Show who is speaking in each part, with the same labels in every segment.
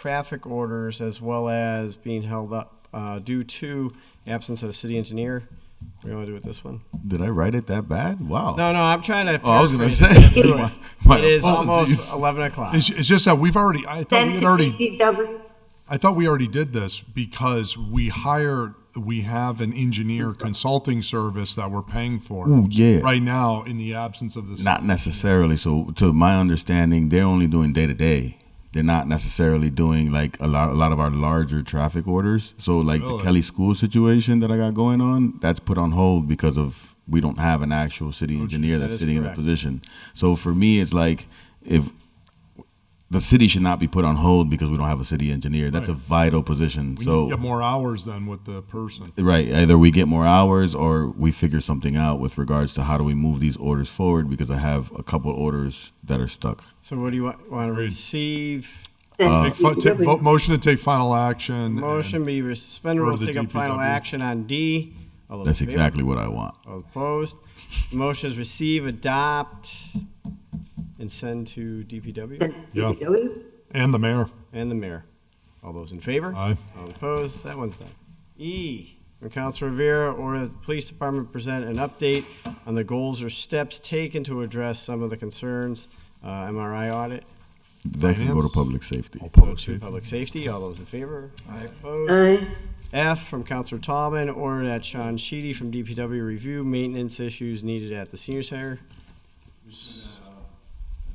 Speaker 1: traffic orders as well as being held up uh, due to absence of a city engineer. What do you want to do with this one?
Speaker 2: Did I write it that bad? Wow.
Speaker 1: No, no, I'm trying to.
Speaker 2: Oh, I was gonna say.
Speaker 1: paraphrase it.
Speaker 2: My- my
Speaker 1: It is
Speaker 2: apologies.
Speaker 1: almost 11 o'clock.
Speaker 3: It's, it's just that we've already, I thought we
Speaker 4: Send
Speaker 3: had
Speaker 4: to
Speaker 3: already,
Speaker 4: DPW.
Speaker 3: I thought we already did this because we hire, we have an engineer consulting service that we're paying for.
Speaker 2: Ooh, yeah.
Speaker 3: Right now, in the absence of this.
Speaker 2: Not necessarily. So, to my understanding, they're only doing day to day. They're not necessarily doing like a lot, a lot of our larger traffic orders. So, like
Speaker 3: Really?
Speaker 2: the Kelly School situation that I got going on, that's put on hold because of we don't have an actual city engineer
Speaker 1: that
Speaker 2: that's
Speaker 1: is
Speaker 2: sitting
Speaker 1: correct.
Speaker 2: in the position. So, for me, it's like if the city should not be put on hold because we don't have a city engineer. That's a vital position.
Speaker 3: We need
Speaker 2: so
Speaker 3: to get more hours than with the person.
Speaker 2: Right. Either we get more hours or we figure something out with regards to how do we move these orders forward because I have a couple orders that are stuck.
Speaker 1: So what do you want, want to receive?
Speaker 4: Send to
Speaker 3: Uh,
Speaker 2: Uh,
Speaker 3: Take, fi- ta-
Speaker 4: DPW.
Speaker 3: vote- motion to take final action.
Speaker 1: Motion be re- suspended rules,
Speaker 3: Or the
Speaker 1: take up final
Speaker 3: DPW.
Speaker 1: action on D. All those
Speaker 2: That's
Speaker 1: in favor?
Speaker 2: exactly what I want.
Speaker 1: All opposed? Motion is receive, adopt, and send to DPW
Speaker 4: Send to
Speaker 3: Yeah.
Speaker 4: DPW.
Speaker 3: And, and the mayor.
Speaker 1: and the mayor. All those in favor?
Speaker 3: Aye.
Speaker 1: All opposed? That one's done. E, from Council Rivera, order that the police department present an update on the goals or steps taken to address some of the concerns, uh, MRI audit.
Speaker 2: That can go to public safety.
Speaker 1: Public safety. Public safety, all those in favor? Aye. Opposed?
Speaker 4: Aye.
Speaker 1: F from Counselor Tallman, order that Sean Sheedy from DPW review maintenance issues needed at the senior center.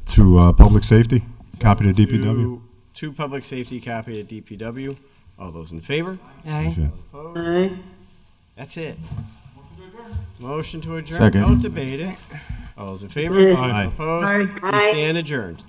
Speaker 5: To uh, public safety, copy to DPW.
Speaker 1: To- To public safety, copy to DPW. All those in favor?
Speaker 5: Yeah.
Speaker 4: Aye.
Speaker 1: That's it. Motion to adjourn.
Speaker 2: Second.
Speaker 1: Don't debate it. All those in favor?
Speaker 3: Aye.
Speaker 1: Opposed?
Speaker 6: Aye.
Speaker 1: We stand adjourned.